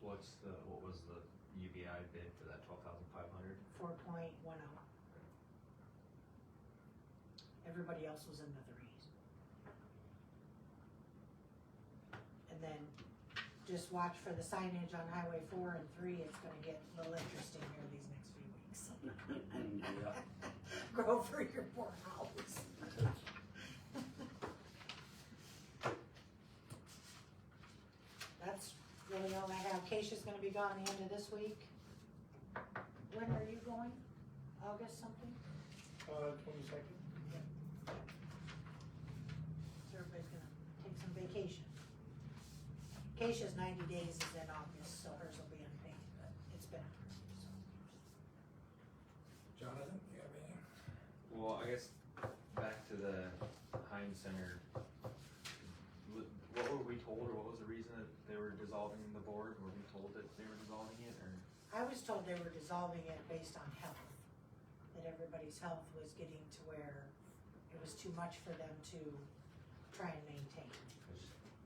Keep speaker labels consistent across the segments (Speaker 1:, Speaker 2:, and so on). Speaker 1: what's the, what was the UBI bid for that twelve thousand five hundred?
Speaker 2: four point one oh. Everybody else was in the threes. And then just watch for the signage on Highway four and three, it's gonna get a little interesting here these next few weeks. Go for your poor house. That's really all I have, Keisha's gonna be gone the end of this week. When are you going? August something?
Speaker 3: Uh, twenty-second?
Speaker 2: So everybody's gonna take some vacation. Keisha's ninety days is in August, so hers will be unpaid, but it's been approved, so.
Speaker 3: Jonathan, you have anything?
Speaker 1: Well, I guess back to the Heinz Center. Wh- What were we told or what was the reason that they were dissolving the board? Were we told that they were dissolving it or?
Speaker 2: I was told they were dissolving it based on health, that everybody's health was getting to where it was too much for them to try and maintain.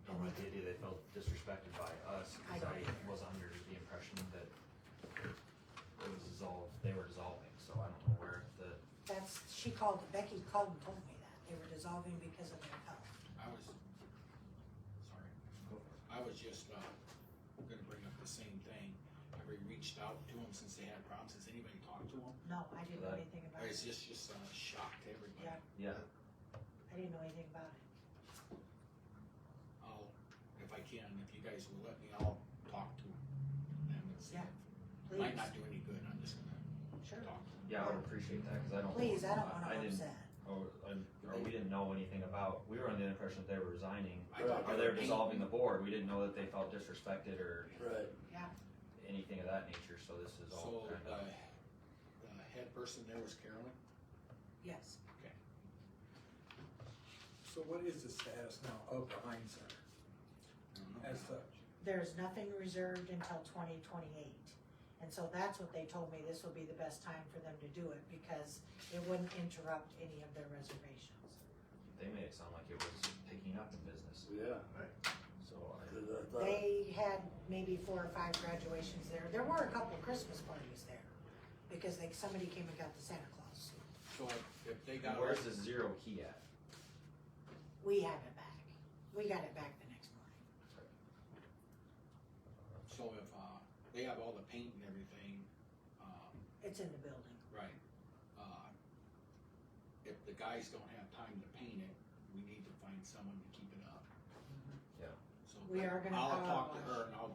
Speaker 1: I don't like the idea they felt disrespected by us
Speaker 2: I
Speaker 1: because
Speaker 2: don't
Speaker 1: I
Speaker 2: either.
Speaker 1: was under the impression that it was dissolved, they were dissolving, so I don't know where the,
Speaker 2: That's, she called, Becky called and told me that, they were dissolving because of their health.
Speaker 4: I was, sorry, I was just, uh, gonna bring up the same thing. Have we reached out to them since they had problems? Has anybody talked to them?
Speaker 2: No, I didn't know
Speaker 1: Right.
Speaker 2: anything about
Speaker 4: Or is
Speaker 2: it,
Speaker 4: this just a shock to everybody?
Speaker 2: Yeah. I
Speaker 1: yeah,
Speaker 2: didn't know anything about it.
Speaker 4: I'll, if I can, if you guys will let me, I'll talk to them and see.
Speaker 2: Yeah,
Speaker 4: if- Might
Speaker 2: Please,
Speaker 4: not do any good, I'm just gonna
Speaker 2: sure,
Speaker 4: talk to them.
Speaker 1: yeah, I would appreciate that because I don't.
Speaker 2: please, I don't wanna
Speaker 1: didn't-
Speaker 2: upset.
Speaker 1: Or, or- or we didn't know anything about, we were under the impression that they were resigning,
Speaker 4: I thought
Speaker 1: or
Speaker 4: they
Speaker 1: they were
Speaker 4: were
Speaker 1: dissolving the board, we didn't know that they felt disrespected or
Speaker 5: Right.
Speaker 1: anything of that nature, so this is all
Speaker 4: So,
Speaker 1: kind
Speaker 4: the,
Speaker 1: of.
Speaker 4: the head person there was Carolyn?
Speaker 2: Yes,
Speaker 3: So what is the status now of the Heinz Center
Speaker 4: I don't know.
Speaker 3: as such?
Speaker 2: there's nothing reserved until twenty twenty-eight. And so that's what they told me, this will be the best time for them to do it, because it wouldn't interrupt any of their reservations.
Speaker 1: They made it sound like it was picking up in business,
Speaker 5: Yeah,
Speaker 1: so I,
Speaker 5: cause I thought,
Speaker 2: They had maybe four or five graduations there, there were a couple Christmas parties there, because they, somebody came and got the Santa Claus.
Speaker 4: So if- if they got,
Speaker 1: where's the zero key at?
Speaker 2: We have it back, we got it back the next morning.
Speaker 4: so if, uh, they have all the paint and everything, um,
Speaker 2: It's in the building.
Speaker 4: Right. Uh, If the guys don't have time to paint it, we need to find someone to keep it up.
Speaker 1: Mm-hmm. Yeah.
Speaker 4: So
Speaker 2: We are gonna
Speaker 4: I'll
Speaker 2: power
Speaker 4: talk to
Speaker 2: wash.
Speaker 4: her and I'll,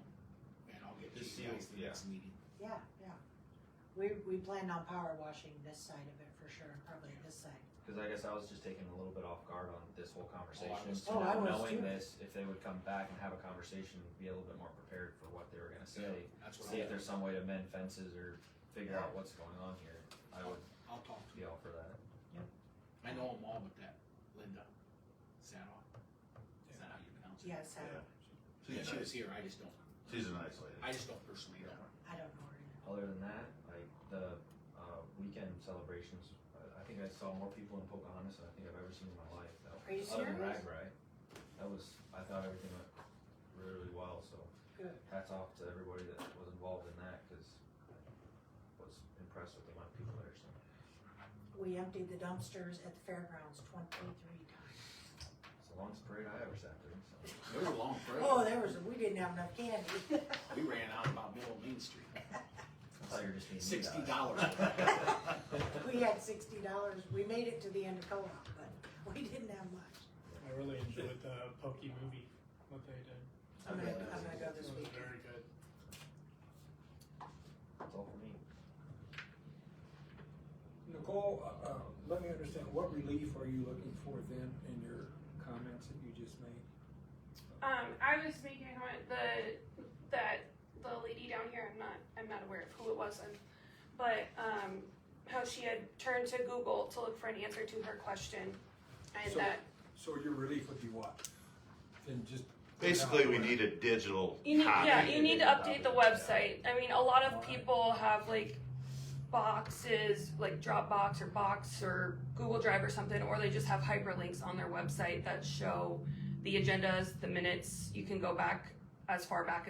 Speaker 4: and I'll get
Speaker 1: Just see
Speaker 4: you guys
Speaker 1: what-
Speaker 4: the next meeting.
Speaker 2: Yeah, yeah. We, we planned on power washing this side of it for sure, and probably this side.
Speaker 1: Cause I guess I was just taken a little bit off guard on this whole conversation,
Speaker 4: was
Speaker 1: So
Speaker 2: too. Oh, I
Speaker 1: not
Speaker 2: was
Speaker 1: knowing
Speaker 2: too.
Speaker 1: this, if they would come back and have a conversation, be a little bit more prepared for what they were gonna say.
Speaker 4: That's what
Speaker 1: See if
Speaker 4: I'll,
Speaker 1: there's some way to mend fences or figure out what's going on here, I would
Speaker 4: I'll talk to
Speaker 1: be all for that.
Speaker 4: I know them all with that Linda Sadoff. Is that how you pronounce it?
Speaker 2: Yes, I,
Speaker 4: Yeah, she was here. I just don't,
Speaker 6: She's an isolated.
Speaker 4: I just don't personally know her.
Speaker 2: I don't know where to go.
Speaker 1: Other than that, like the uh, weekend celebrations, I- I think I saw more people in Pocahontas than I think I've ever seen in my life. Though.
Speaker 2: Are you
Speaker 1: Other than
Speaker 2: serious?
Speaker 1: Ragbri, that was I thought everything went really well. So
Speaker 2: Good.
Speaker 1: hats off to everybody that was involved in that because was impressed with the amount of people there. So
Speaker 2: We emptied the dumpsters at the fairgrounds twenty-three times.
Speaker 1: it's the longest parade I ever sat through. So
Speaker 4: It was a long
Speaker 2: Oh,
Speaker 4: trip.
Speaker 2: there was, we didn't have enough candy.
Speaker 4: We ran out about middle of Main Street.
Speaker 1: I thought you were just being mean
Speaker 4: Sixty
Speaker 1: guys.
Speaker 4: dollars.
Speaker 2: We had sixty dollars, we made it to the end of co-op, but we didn't have much.
Speaker 7: I really enjoyed the Pokey movie, what they did.
Speaker 2: I'm gonna, I'm gonna go this
Speaker 7: It was
Speaker 2: weekend.
Speaker 7: very good.
Speaker 1: That's all for me.
Speaker 3: Nicole, uh, uh, let me understand, what relief are you looking for then in your comments that you just made?
Speaker 8: Um, I was making a comment the that the lady down here, I'm not I'm not aware of who it was, and, but um, how she had turned to Google to look for an answer to her question, and
Speaker 3: So-
Speaker 8: that
Speaker 3: So your relief would be what? Then just.
Speaker 6: Basically, we need a digital
Speaker 8: you need
Speaker 6: copy.
Speaker 8: yeah you need to update the website. I mean, a lot of
Speaker 3: Alright.
Speaker 8: people have like boxes like Dropbox or Box or Google Drive or something, or they just have hyperlinks on their website that show the agendas, the minutes. You can go back as far back as